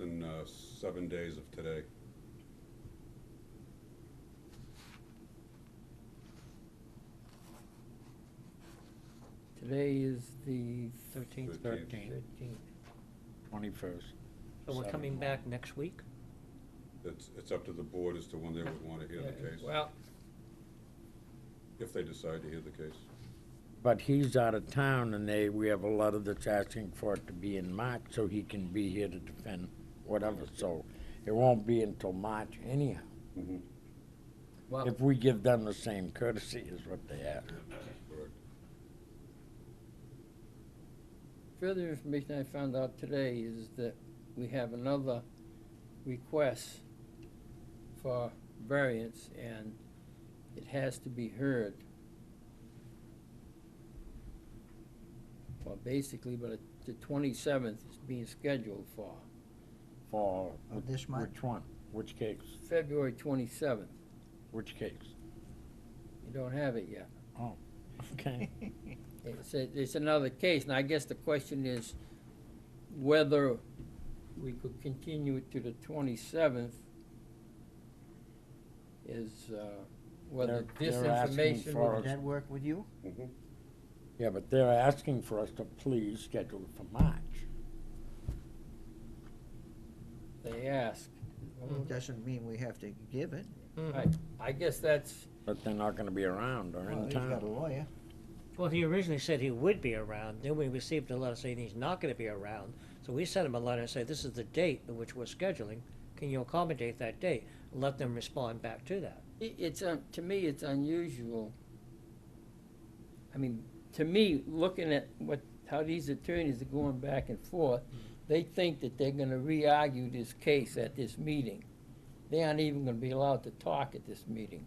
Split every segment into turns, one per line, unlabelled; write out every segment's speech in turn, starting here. uh, seven days of today.
Today is the
Thirteenth,
Thirteenth.
thirteenth,
thirteenth.
twenty-first.
So we're
Seven.
coming back next week?
It's, it's up to the board as to when they would want to hear the
Yeah,
case,
Well,
if they decide to hear the case.
But he's out of town and they, we have a letter that's asking for it to be in March so he can be here to defend whatever, so it won't be until March anyhow.
Mhm.
well,
If we give them the same courtesy as what they ask.
Correct.
further information I found out today is that we have another request for variance, and it has to be heard. Well, basically, but it- the twenty-seventh is being scheduled for
For.
Oh, this month?
Which one? Which case?
February twenty-seventh.
Which case? Oh,
You don't have it yet.
Okay.
It's, a- it's another case, and I guess the question is whether we could continue it to the twenty-seventh is, uh, whether
They're-
this
they're asking
information
for
would,
Would that work with you?
Mhm.
Yeah, but they're asking for us to please schedule it for March.
they ask.
Mm-hmm.
Well, it Doesn't mean we have to give it.
I, I guess that's,
But they're not gonna be around or
Well,
in
he's got a
town.
lawyer.
Well, he originally said he would be around, then we received a letter saying he's not gonna be around. So we sent him a letter and said, this is the date at which we're scheduling, can you accommodate that date? Let them respond back to that.
i- it's, un- to me, it's unusual. I mean, to me, looking at what, how these attorneys are going back and forth, they think that they're gonna re-argue this case at this meeting. They aren't even gonna be allowed to talk at this meeting.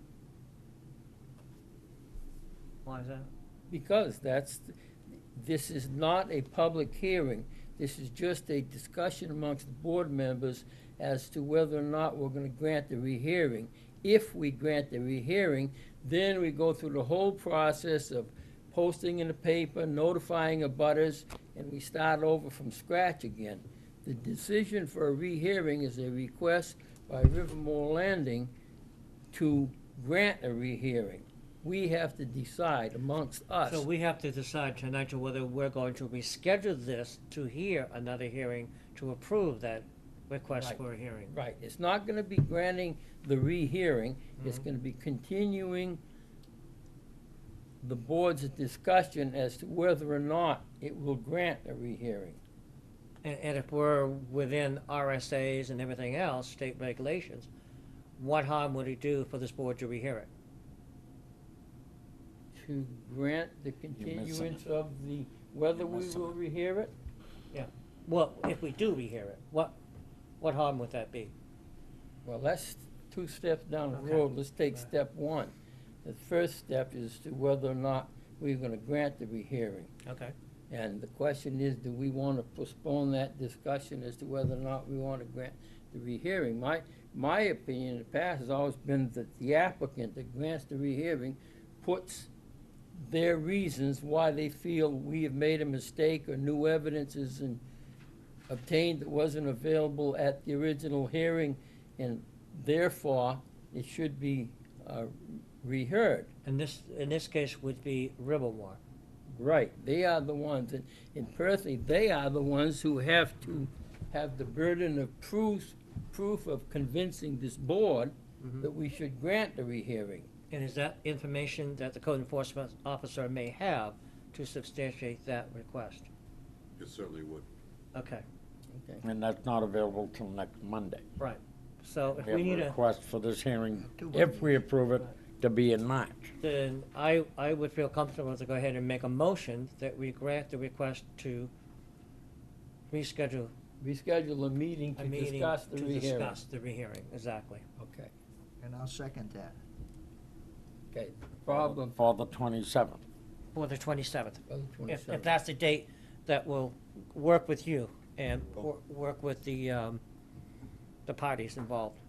Why is that?
Because that's, this is not a public hearing. This is just a discussion amongst the board members as to whether or not we're gonna grant the rehearing. If we grant the rehearing, then we go through the whole process of posting in the paper, notifying abutters, and we start over from scratch again. The decision for a rehearing is a request by Rivermore Landing to grant a rehearing. We have to decide amongst us.
So we have to decide tonight to whether we're going to reschedule this to hear another hearing to approve that request
Right.
for a hearing.
Right, it's not gonna be granting the rehearing, it's
Mhm.
gonna be continuing the board's discussion as to whether or not it will grant a rehearing.
And, and if we're within RSAs and everything else, state regulations, what harm would it do for this board to rehear it?
To grant the
You're missing it.
continuance of the, whether
You're
we
missing
will rehear it?
Well, if we do rehear it, what, what harm would that be?
Well, that's two steps down the
Okay.
road, let's take
Right.
step one. The first step is to whether or not we're gonna grant the rehearing.
Okay.
And the question is, do we want to postpone that discussion as to whether or not we want to grant the rehearing? My, my opinion in the past has always been that the applicant that grants the rehearing puts their reasons why they feel we have made a mistake or new evidence is in- obtained that wasn't available at the original hearing, and therefore, it should be uh, reheard.
And this, in this case, would be Rivermore.
Right, they are the ones, and, and personally, they are the ones who have to have the burden of proof, proof of convincing this board that we should grant the rehearing.
And is that information that the code enforcement officer may have to substantiate that request?
It certainly would.
Okay,
Okay.
And that's not available till next Monday.
right. So if
We have
we need
a
a,
request for this hearing,
Two
if we approve it, to be in March.
then I, I would feel comfortable to go ahead and make a motion that we grant the request to reschedule
Reschedule a meeting
a
to
meeting
discuss the
to
rehearing.
discuss the rehearing, exactly.
Okay,
And I'll second that.
okay, problem
For the twenty-seventh.
For the twenty-seventh.
for the
If, if
twenty-seventh.
that's the date that will work with you and wor- work with the, um, the parties involved.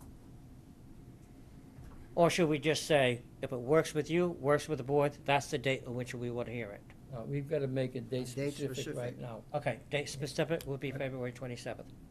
Or should we just say, if it works with you, works with the board, that's the date on which we want to hear it?
Uh, We've got to make a date
Date
specific right
specific.
now.
Okay, date specific would be February twenty-seventh.